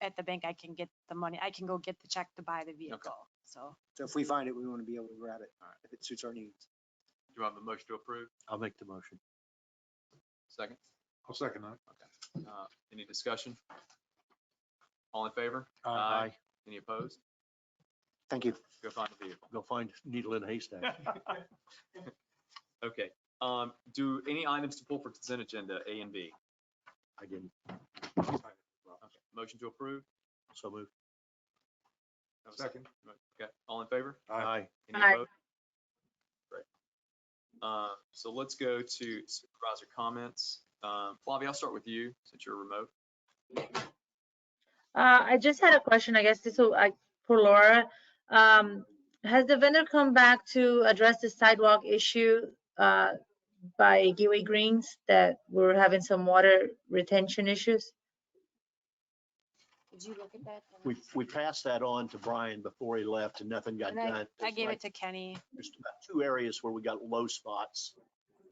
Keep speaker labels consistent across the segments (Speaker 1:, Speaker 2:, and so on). Speaker 1: at the bank, I can get the money, I can go get the check to buy the vehicle, so.
Speaker 2: So if we find it, we want to be able to grab it if it suits our needs.
Speaker 3: Do I have a motion to approve?
Speaker 4: I'll make the motion.
Speaker 3: Second?
Speaker 5: I'll second that.
Speaker 3: Uh, Any discussion? All in favor?
Speaker 4: Aye.
Speaker 3: Any opposed?
Speaker 2: Thank you.
Speaker 3: Go find the vehicle.
Speaker 4: Go find needle in a haystack.
Speaker 3: Okay. Um, Do any items to pull for consent agenda, A and B?
Speaker 4: I didn't,
Speaker 3: Okay. Motion to approve?
Speaker 4: so moved.
Speaker 3: Have a
Speaker 5: Second.
Speaker 3: Okay, all in favor?
Speaker 5: Aye.
Speaker 3: Any
Speaker 6: Aye.
Speaker 3: opposed? Great. Uh, so let's go to supervisor comments. Um, Flavia, I'll start with you since you're remote.
Speaker 6: Uh, I just had a question, I guess this will, I, for Laura. Um, has the vendor come back to address the sidewalk issue, uh, by Gateway Greens that we're having some water retention issues?
Speaker 1: Did you look at that?
Speaker 4: We, we passed that on to Brian before he left and nothing got
Speaker 1: And I-
Speaker 4: done.
Speaker 1: I gave
Speaker 4: There's
Speaker 1: it to Kenny.
Speaker 4: there's about two areas where we got low spots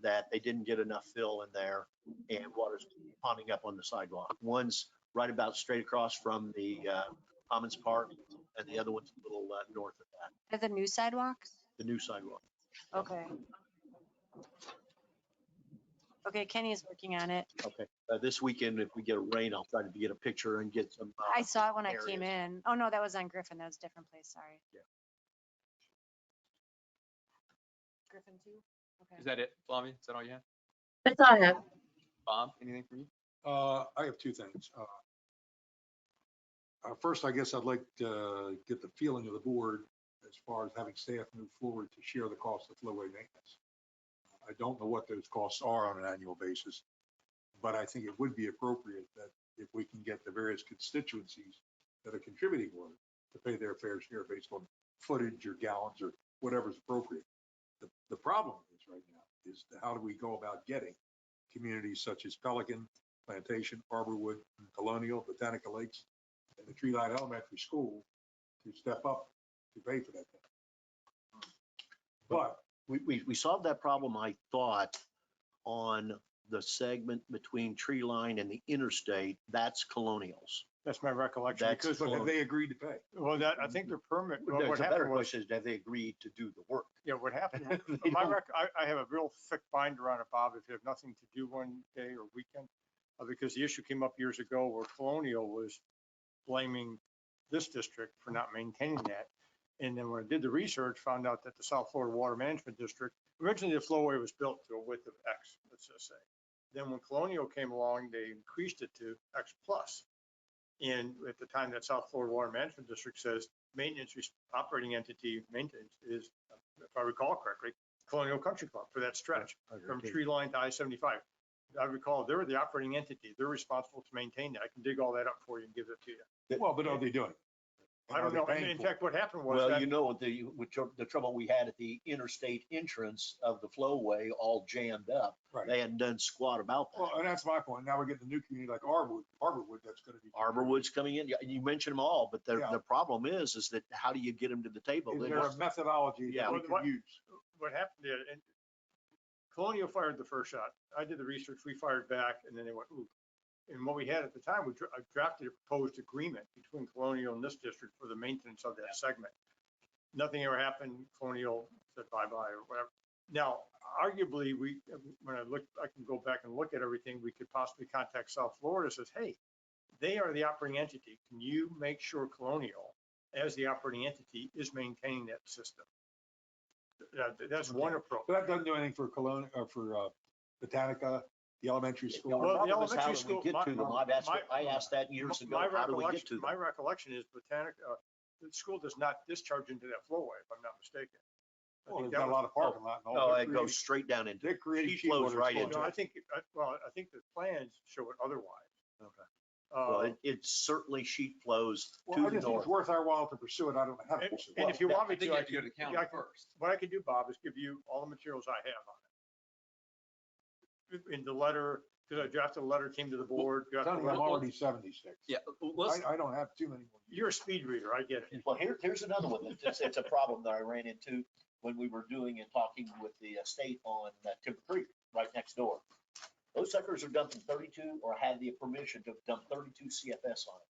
Speaker 4: that they didn't get enough fill in there and water's ponding up on the sidewalk. One's right about straight across from the uh, Commons Park and the other one's a little uh, north of that,
Speaker 1: Are the new sidewalks?
Speaker 4: the new sidewalk.
Speaker 1: Okay. Okay, Kenny is working on it.
Speaker 4: Okay, Uh, this weekend, if we get a rain, I'll try to get a picture and get some. uh,
Speaker 1: I saw it when I came
Speaker 4: areas.
Speaker 1: in. Oh, no, that was on Griffin. That was a different place, sorry.
Speaker 4: Yeah.
Speaker 1: Griffin two? Okay.
Speaker 3: Is that it, Flavia? Is that all you have?
Speaker 6: That's all I have.
Speaker 3: Bob, anything from you?
Speaker 5: Uh, I have two things. Uh, uh, First, I guess I'd like to get the feeling of the board as far as having staff move forward to share the cost of flowway maintenance. I don't know what those costs are on an annual basis, but I think it would be appropriate that if we can get the various constituencies that are contributing water to pay their fair share based on footage or gallons or whatever's appropriate. The, the problem is right now is how do we go about getting communities such as Pelican, Plantation, Arborwood, and Colonial, Botanica Lakes, and the Tree Line Elementary School to step up to pay for that. thing. But
Speaker 4: We, we, we solved that problem, I thought, on the segment between tree line and the interstate. That's colonials.
Speaker 7: That's my recollection,
Speaker 4: That's
Speaker 7: because,
Speaker 5: but have they agreed to pay?
Speaker 7: well, that, I think their permit, well,
Speaker 4: There's
Speaker 7: what
Speaker 4: a better
Speaker 7: happened was,
Speaker 4: question is, have they agreed to do the work?
Speaker 7: yeah, what happened, was-
Speaker 4: They
Speaker 7: my
Speaker 4: don't.
Speaker 7: rec, I, I have a real thick binder on it, Bob, if you have nothing to do one day or weekend. uh, Because the issue came up years ago where Colonial was blaming this district for not maintaining that. And then when I did the research, found out that the South Florida Water Management District, originally the flowway was built to a width of X, let's just say. Then when Colonial came along, they increased it to X plus. And at the time, that South Florida Water Management District says maintenance, res- operating entity maintenance is, if I recall correctly, Colonial Country Club for that stretch from tree line to I-75. I recall, they were the operating entity. They're responsible to maintain that. I can dig all that up for you and give it to you.
Speaker 5: Well, but are they doing? it?
Speaker 7: I
Speaker 5: Are
Speaker 7: don't
Speaker 5: they
Speaker 7: know.
Speaker 5: paying
Speaker 7: In
Speaker 5: for it?
Speaker 7: fact, what happened was
Speaker 4: Well,
Speaker 7: that,
Speaker 4: you know, the, which are- the trouble we had at the interstate entrance of the flowway all jammed up.
Speaker 5: Right.
Speaker 4: They hadn't done squat about
Speaker 5: Well,
Speaker 4: that.
Speaker 5: and that's my point. Now we're getting a new community like Arborwood, Arborwood, that's gonna be.
Speaker 4: Arborwood's coming in. Yeah, You mentioned them all, but the,
Speaker 5: Yeah.
Speaker 4: the problem is, is that how do you get them to the table?
Speaker 5: Is
Speaker 4: They
Speaker 5: there a
Speaker 4: just-
Speaker 5: methodology
Speaker 4: Yeah.
Speaker 5: that we
Speaker 7: What-
Speaker 5: can use?
Speaker 7: what happened there, and Colonial fired the first shot. I did the research, we fired back, and then they went, ooh. And what we had at the time, we dra- I drafted a proposed agreement between Colonial and this district for the maintenance of that segment. Nothing ever happened. Colonial said bye-bye or whatever. Now, arguably, we, when I look, I can go back and look at everything, we could possibly contact South Florida, says, hey, they are the operating entity. Can you make sure Colonial, as the operating entity, is maintaining that system? That- that's one approach.
Speaker 5: But that doesn't do anything for Colon, or for uh, Botanica, the elementary
Speaker 4: Yeah,
Speaker 5: school.
Speaker 7: Well,
Speaker 4: Well,
Speaker 7: the
Speaker 4: the problem is how
Speaker 7: elementary
Speaker 4: do we
Speaker 7: school-
Speaker 4: get
Speaker 7: my-
Speaker 4: to them? I've asked,
Speaker 7: my-
Speaker 4: I asked that years ago.
Speaker 7: My
Speaker 4: How do we get
Speaker 7: recollection,
Speaker 4: to
Speaker 7: my
Speaker 4: them?
Speaker 7: recollection is Botanic, uh, the school does not discharge into that flowway, if I'm not mistaken. I
Speaker 5: Well, There's
Speaker 7: think that
Speaker 5: got a
Speaker 7: was-
Speaker 5: lot of parking lot. and all
Speaker 4: No,
Speaker 5: that
Speaker 4: Oh, it
Speaker 5: creating-
Speaker 4: goes straight down into.
Speaker 5: They're creating.
Speaker 4: She
Speaker 5: cheap
Speaker 4: flows
Speaker 5: water
Speaker 4: right
Speaker 5: storage.
Speaker 4: into
Speaker 7: No, I think, I- well, I think the plans show it otherwise.
Speaker 4: Okay. Well,
Speaker 7: Uh,
Speaker 4: it, it certainly sheet flows
Speaker 5: Well,
Speaker 4: to
Speaker 5: I
Speaker 4: the
Speaker 5: just think
Speaker 4: north.
Speaker 5: it's worth our while to pursue it. I don't know how to
Speaker 7: And-
Speaker 5: pursue it.
Speaker 7: and if you
Speaker 4: Well,
Speaker 7: want me
Speaker 3: I think
Speaker 7: to,
Speaker 3: you
Speaker 7: I
Speaker 3: have to go
Speaker 7: can,
Speaker 3: to the
Speaker 7: yeah,
Speaker 3: county
Speaker 7: I can-
Speaker 3: first.
Speaker 7: what I can do, Bob, is give you all the materials I have on it. In the letter, because I drafted a letter, came to the board. drafted a
Speaker 5: Sonny, I'm
Speaker 7: letter.
Speaker 5: already seventy-six.
Speaker 3: Yeah, let's,
Speaker 5: I, I don't have too many. more.
Speaker 7: You're a speed reader, I get it.
Speaker 4: Well, here, here's another one. that's- It's, it's a problem that I ran into when we were doing and talking with the state on uh, Timber Creek, right next door. Those suckers are dumping thirty-two or had the permission to dump thirty-two CFS on it.